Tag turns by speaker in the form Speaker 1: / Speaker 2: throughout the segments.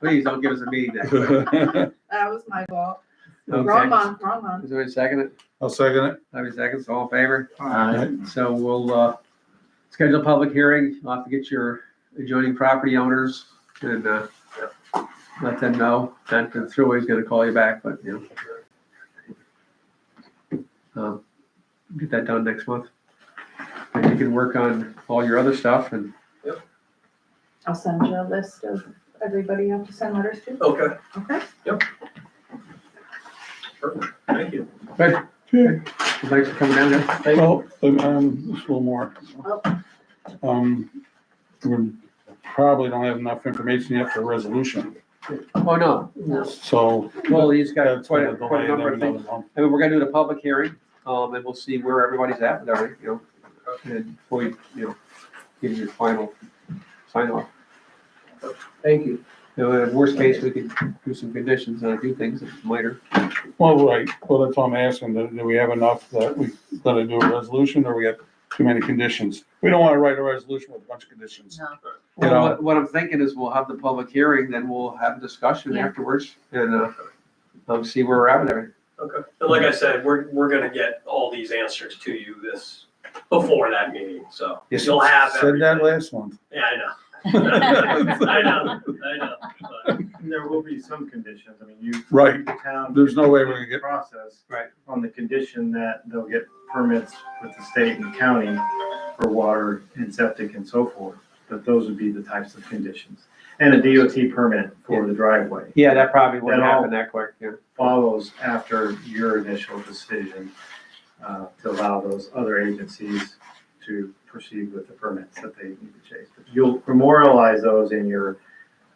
Speaker 1: Please don't give us a meeting day.
Speaker 2: Aye.
Speaker 3: That was my fault. Wrong
Speaker 1: Okay.
Speaker 3: month, wrong month.
Speaker 1: Is there a second?
Speaker 2: I'll second it.
Speaker 1: Have a second, all in favor?
Speaker 2: Aye.
Speaker 1: So we'll, uh, schedule a public hearing. You'll have to get your adjoining property owners and, uh, let them know. That the thruway's gonna call you back, but, you know. Um, Get that done next month. And you can work on all your other stuff and
Speaker 3: I'll send you a list of everybody you have to send letters to,
Speaker 4: Okay,
Speaker 3: okay?
Speaker 4: thank you.
Speaker 1: thanks for coming down there.
Speaker 2: Well, um, just a little more. Um, we probably don't have enough information yet for resolution,
Speaker 1: Oh, no.
Speaker 2: so.
Speaker 1: Well, he's got
Speaker 2: that's
Speaker 1: quite
Speaker 2: gonna
Speaker 1: a, quite a
Speaker 2: delay
Speaker 1: number of
Speaker 2: them
Speaker 1: things.
Speaker 2: another month.
Speaker 1: I mean, we're gonna do the public hearing, um, and we'll see where everybody's at with everything, you know, and before you, you know, give your final sign off.
Speaker 4: Thank you.
Speaker 1: You know, in worst case, we could do some conditions on a few things later.
Speaker 2: Well, right, well, that's what I'm asking, do, do we have enough that we gotta do a resolution, or we have too many conditions? We don't wanna write a resolution with a bunch of conditions. You know.
Speaker 1: Well, what, what I'm thinking is we'll have the public hearing, then we'll have a discussion
Speaker 3: Yeah.
Speaker 1: afterwards and, uh, um, see where we're at with everything.
Speaker 4: Okay, but like I said, we're, we're gonna get all these answers to you this, before that meeting, so
Speaker 2: Yes.
Speaker 4: you'll have
Speaker 2: Said that
Speaker 4: everything.
Speaker 2: last month.
Speaker 4: Yeah, I know. I know, I know. but-
Speaker 5: There will be some conditions, I mean, you.
Speaker 2: Right.
Speaker 5: the Town.
Speaker 2: There's no way we're gonna get-
Speaker 5: Process.
Speaker 1: Right.
Speaker 5: On the condition that they'll get permits with the state and county for water and septic and so forth, that those would be the types of conditions. And a DOT permit for the driveway
Speaker 1: Yeah, that probably wouldn't
Speaker 5: Then I'll-
Speaker 1: happen that quick, yeah.
Speaker 5: follows after your initial decision uh, to allow those other agencies to proceed with the permits that they need to chase. But You'll memorialize those in your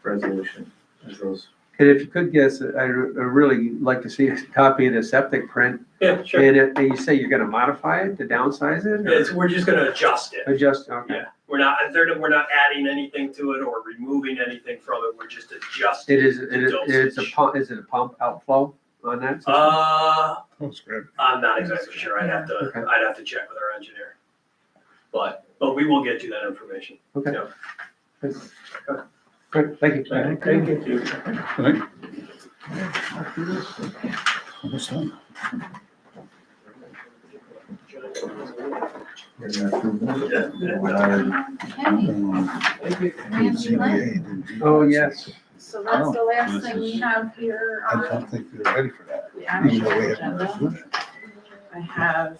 Speaker 5: resolution as those
Speaker 1: And if you could guess, uh, I'd really like to see a copy of the septic print.
Speaker 4: Yeah, sure.
Speaker 1: And if, and you say you're gonna modify it to downsize it? or-
Speaker 4: It's, we're just gonna adjust it.
Speaker 1: Adjust, okay.
Speaker 4: Yeah, we're not, they're, we're not adding anything to it or removing anything from it, we're just adjusting.
Speaker 1: It is,
Speaker 4: the
Speaker 1: it is, it's a
Speaker 4: dosage.
Speaker 1: pump, is it a pump outflow on that? system?
Speaker 4: Uh,
Speaker 2: That's good.
Speaker 4: I'm not exactly sure, I'd have to,
Speaker 1: Okay.
Speaker 4: I'd have to check with our engineer. But, but we will get you that information.
Speaker 1: Okay.
Speaker 4: yeah.
Speaker 1: Good. Good, thank you.
Speaker 4: Thank you.
Speaker 1: Oh,
Speaker 2: Almost done.
Speaker 3: Okay,
Speaker 1: Oh, yes.
Speaker 3: so
Speaker 2: Oh,
Speaker 3: that's the last thing we have here
Speaker 6: I
Speaker 3: on
Speaker 6: don't think they're ready for that,
Speaker 3: the
Speaker 6: even
Speaker 3: actual
Speaker 6: though we have
Speaker 3: agenda.
Speaker 6: no
Speaker 3: I have,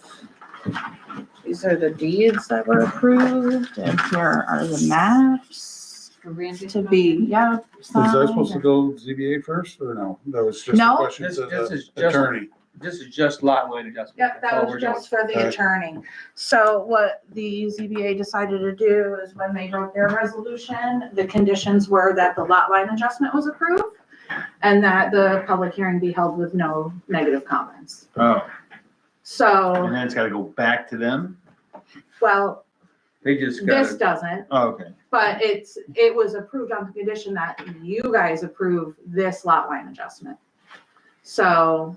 Speaker 3: these are the deeds that were approved, and here are the maps to be, yeah.
Speaker 2: Was I supposed to go ZBA first or no? That was just a
Speaker 3: No.
Speaker 2: question to
Speaker 1: This- this is
Speaker 2: the
Speaker 1: just-
Speaker 2: attorney.
Speaker 1: This is just lot line adjustment.
Speaker 3: Yep,
Speaker 1: That's all
Speaker 3: that
Speaker 1: we're
Speaker 3: was
Speaker 1: doing.
Speaker 3: just for the
Speaker 2: Alright.
Speaker 3: attorney. So what the ZBA decided to do is when they wrote their resolution, the conditions were that the lot line adjustment was approved and that the public hearing be held with no negative comments.
Speaker 6: Oh, and
Speaker 3: So,
Speaker 6: then it's gotta go back to them?
Speaker 3: well,
Speaker 1: They just got,
Speaker 3: this
Speaker 1: it.
Speaker 3: doesn't,
Speaker 6: Oh, okay.
Speaker 3: but it's, it was approved on the condition that you guys approve this lot line adjustment. So,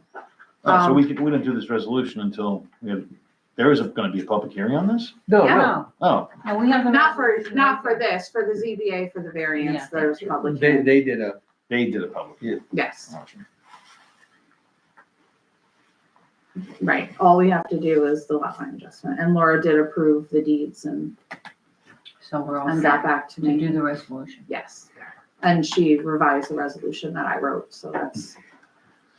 Speaker 6: Oh, so
Speaker 3: Um,
Speaker 6: we could, we didn't do this resolution until we had, there is gonna be a public hearing on this?
Speaker 1: no, no,
Speaker 7: No,
Speaker 6: Oh,
Speaker 7: no, we haven't.
Speaker 3: not for, not for this, for the ZBA, for the variance,
Speaker 7: Yeah.
Speaker 3: there's public
Speaker 1: they,
Speaker 3: hearing,
Speaker 1: they did a,
Speaker 6: they did a public.
Speaker 3: yes.
Speaker 6: hearing.
Speaker 3: Right, all we have to do is the lot line adjustment, and Laura did approve the deeds and,
Speaker 7: So we're all
Speaker 3: and
Speaker 7: set
Speaker 3: got back to
Speaker 7: to
Speaker 3: me,
Speaker 7: do the resolution.
Speaker 3: yes. And she revised the resolution that I wrote, so that's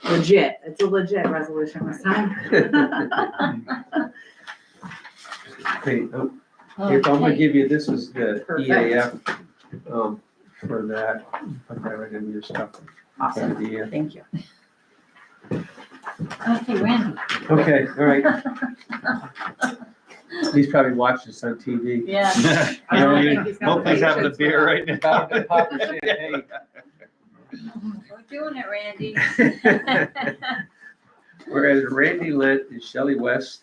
Speaker 3: legit, it's a legit resolution this time.
Speaker 1: hey, oh, here, I'm gonna give you, this is the
Speaker 3: Perfect.
Speaker 1: EAF, um, for that. Put that right in your stuff.
Speaker 7: Awesome,
Speaker 1: Yeah.
Speaker 7: thank you. Okay, Randy.
Speaker 1: Okay, all right. He's probably watching this on TV.
Speaker 7: Yeah.
Speaker 3: I don't think he's got
Speaker 6: Hope he's
Speaker 3: the
Speaker 6: having a
Speaker 3: patience
Speaker 6: beer
Speaker 3: for
Speaker 6: right
Speaker 1: About to
Speaker 6: now.
Speaker 1: pop the champagne.
Speaker 7: We're doing it, Randy.
Speaker 1: Whereas Randy Lent and Shelley West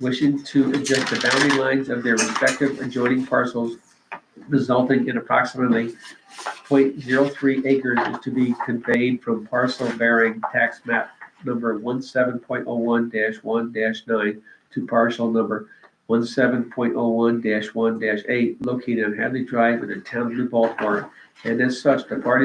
Speaker 1: wishing to adjust the boundary lines of their respective adjoining parcels resulting in approximately 0.03 acres is to be conveyed from parcel bearing tax map number 17.01 one nine to parcel number 17.01 one eight located on Hadley Drive in the town of New Baltimore. And as such, the parties